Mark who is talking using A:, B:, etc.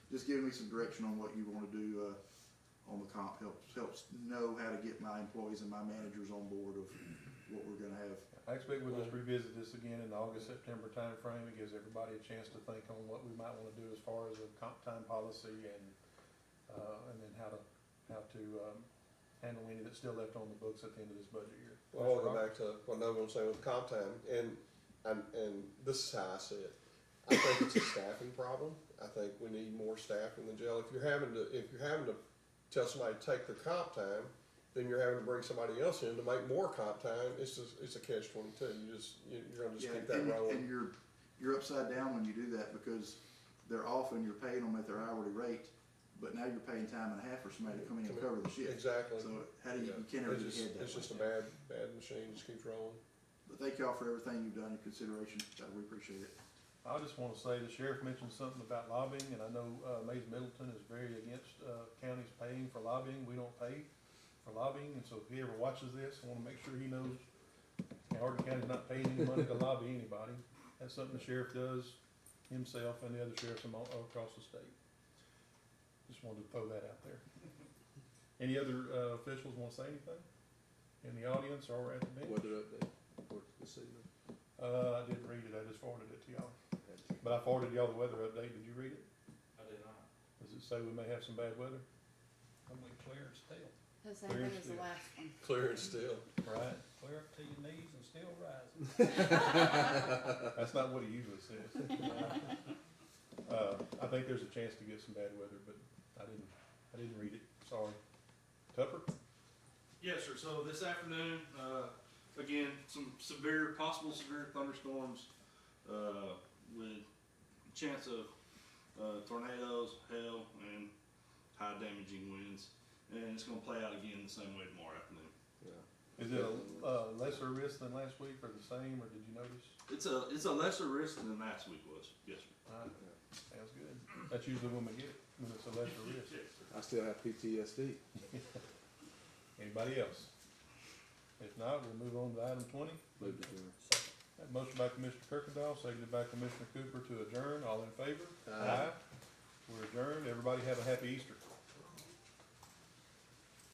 A: just giving me some direction on what you want to do uh, on the comp helps helps know how to get my employees and my managers on board of what we're going to have.
B: I expect we'll just revisit this again in the August, September timeframe. It gives everybody a chance to think on what we might wanna do as far as a comp time policy and, uh, and then how to, how to, um, handle any that's still left on the books at the end of this budget year.
C: Well, I'll go back to what Noah was saying with comp time, and, and, and this is how I see it. I think it's a staffing problem. I think we need more staff in the jail. If you're having to, if you're having to tell somebody to take the comp time, then you're having to bring somebody else in to make more comp time. It's just, it's a catch twenty-two. You just, you- you're gonna just keep that
A: and, and
C: rolling.
A: you're you're upside down when you do that because they're often you're paying them at their hourly rate, but now you're paying time and a half for somebody to come in and cover the shift.
C: Exactly.
A: So how do you,
C: Yeah.
A: you can't ever get
C: It's just,
A: ahead that
C: it's
A: way.
C: just a bad, bad machine. Just keeps rolling.
A: But thank y'all for everything you've done in consideration. Uh, We appreciate it.
B: I just wanna say the sheriff mentioned something about lobbying, and I know, uh, Mays Middleton is very against, uh, counties paying for lobbying. We don't pay for lobbying, and so if he ever watches this, I wanna make sure he knows Hardin County's not paying any money to lobby anybody. That's something the sheriff does himself and the other sheriffs amo- across the state. Just wanted to throw that out there. Any other, uh, officials wanna say anything? In the audience or at the bench?
D: Weather update for this evening.
B: Uh, I didn't read it, I just forwarded it to y'all. But I forwarded y'all the weather update, did you read it?
E: I did not.
B: Does it say we may have some bad weather?
E: I'm like clear and still,
F: The same thing as the
B: Thursday.
F: last one.
C: Clear and still.
B: Right.
E: clear up to your knees and still rising.
B: That's not what he usually says. Uh, I think there's a chance to get some bad weather, but I didn't, I didn't read it, sorry. Tupper?
G: Yes, sir. So this afternoon, uh, again, some severe, possible severe thunderstorms, uh, with chance of, uh, tornadoes, hail, and high damaging winds. And it's gonna play out again the same way tomorrow afternoon.
C: Yeah.
B: Is it a, uh, lesser risk than last week or the same, or did you notice?
G: It's a, it's a lesser risk than last week was. Yes, sir.
B: Uh, Sounds good. That's usually when we get it, when it's a lesser risk.
G: Yes, sir.
D: I still have PTSD.
B: Anybody else? If not, we'll move on to item twenty.
D: Move to adjourn.
B: That Motion by Commissioner Kirkendall, seconded by Commissioner Cooper to adjourn. All in favor?
C: Aye.
B: We're adjourned. Everybody have a happy Easter.